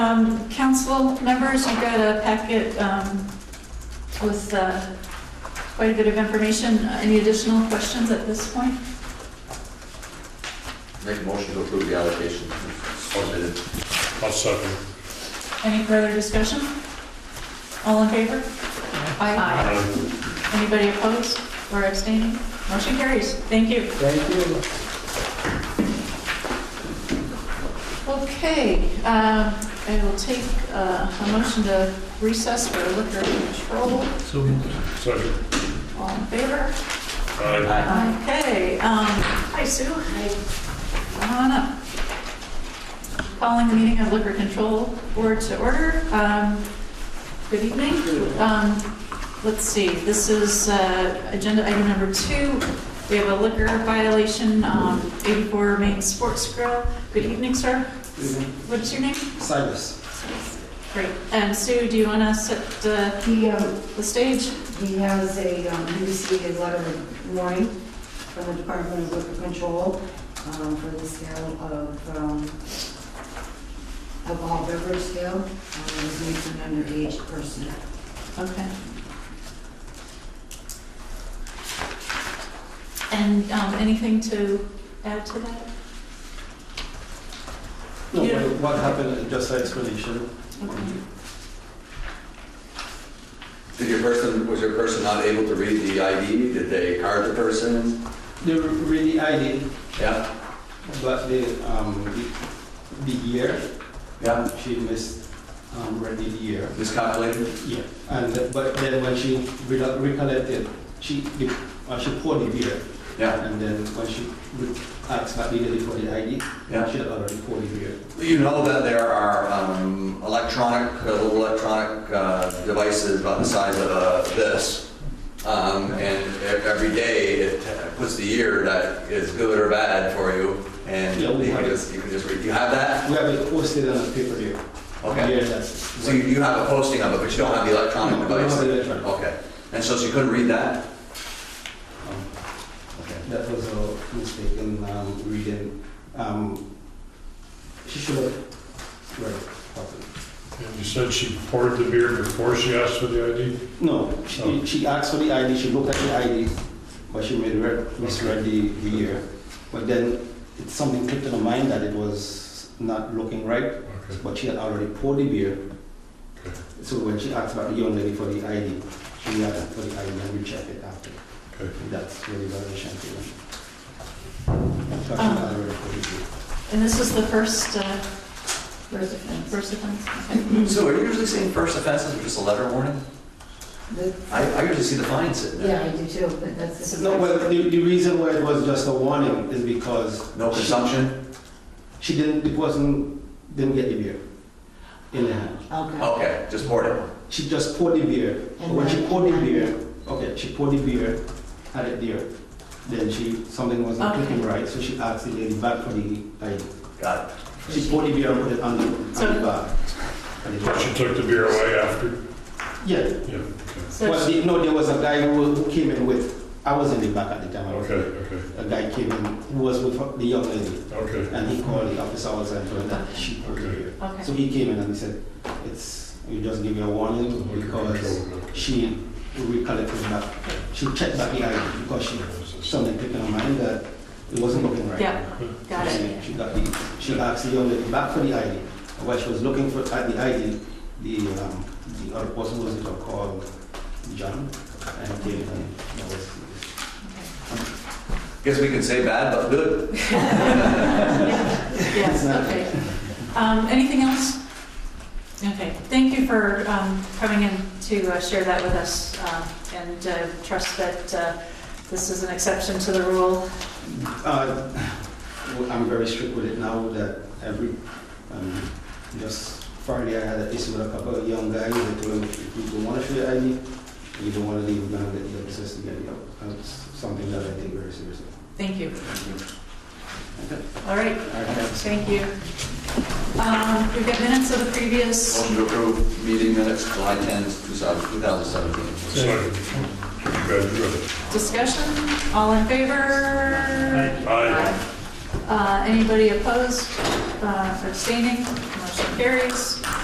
Um, Council members, you got a packet um, with uh, quite a bit of information. Any additional questions at this point? Make a motion to approve the allocation. Submitted. I'll second. Any further discussion? All in favor? Aye. Aye. Anybody opposed or abstaining? Motion carries. Thank you. Thank you. Okay, um, I will take uh, a motion to recess for liquor control. So moved. Second. All in favor? Aye. Aye. Okay, um, hi Sue. Come on up. Calling the meeting of Liquor Control Board to order. Um, Good evening. Um, Let's see, this is uh, agenda item number two. We have a liquor violation, um, 84 Main Sports Grill. Good evening, sir. What's your name? Silas. Great. And Sue, do you want to set uh, He, um, the stage? he has a, um, he received a letter of warning from the Department of Liquor Control, um, for the sale of, um, alcohol beverage sale, um, was made to an underage person. Okay. And um, anything to add to that? No, Yeah. what- what happened, uh, just an explanation. Okay. Did your person, was your person not able to read the ID? Did they card the person? They were really ID, Yeah, but the, um, the, the year, yeah, she missed, um, read the year. miscalculated? Yeah, and, uh, but then when she re- recollected, she, the- uh, she poured the beer. Yeah, And then when she re- asked back immediately for the ID, yeah. she had already poured the beer. You know that there are um, electronic, uh, little electronic uh, devices about the size of uh, this. Um, And e- every day, it puts the year that is good or bad for you, and Yeah, you we can have it. just, you can just read. You have that? We have it posted on a paper here. Okay. Yeah, that's. So you, you have a posting of it, but you don't have the electronic No, we don't device? have the electronic. Okay, and so she couldn't read that? Um, Okay. That was a mistake in um, reading. Um, she should have read it properly. And you said she poured the beer before she asked for the ID? No, she, Oh. she asked for the ID, she looked at the ID, but she made read, misread the, the year. But then it, something clicked in her mind that it was not looking right, Okay. but she had already poured the beer. Okay. So when she asked about the young lady for the ID, she had for the ID and rechecked it after. Okay. That's really violation. Um. Um, And this is the first, uh, first offense, first offense? Okay. So are you usually seeing first offenses with just a letter warning? But, I, I usually see the fine sitting yeah, I there. do too, but that's. No, well, the, the reason why it was just a warning is because No consumption? she didn't, the person didn't get the beer in the hand. Okay. Okay, just poured it. She just poured the beer. And when she then- poured the beer, okay, she poured the beer, had it there. Then she, something wasn't Okay. clicking right, so she asked the lady back for the ID. Got it. She poured the beer and put it on the, on So- the bar. And it But was- she took the beer away after? Yeah, Yeah. well, So the, no, there was a guy who, who came in with, I was in the back at the time. I was- Okay, okay, A guy came in who was with the young lady, okay. and he called the officer also and told her that she poured the Okay. beer. So Okay, he came in and he said, it's, you just give you a warning because she recollected back, she checked back the ID because she, something clicked in her mind that it wasn't looking right. yeah, got it. She got the, she asked the young lady back for the ID, and while she was looking for, at the ID, the, um, the other person was called John, and gave him, that was. Guess we can say bad but good. Yes, okay. Um, Anything else? Okay, thank you for um, coming in to uh, share that with us, uh, and uh, trust that uh, this is an exception to the rule. Uh, well, I'm very strict with it now that every, um, just Friday I had an issue with a couple of young guys. I told them, if you don't want to show your ID, you don't want to leave, we're gonna get the officers to get you out. That's something that I take very seriously. Thank you. Okay. All right, All right. thank you. Um, We've got minutes of the previous, Motion to approve meeting minutes July 10th, 2017. Second. Good, good. discussion, all in favor? Aye. Uh, Anybody opposed, Uh, abstaining, motion carries.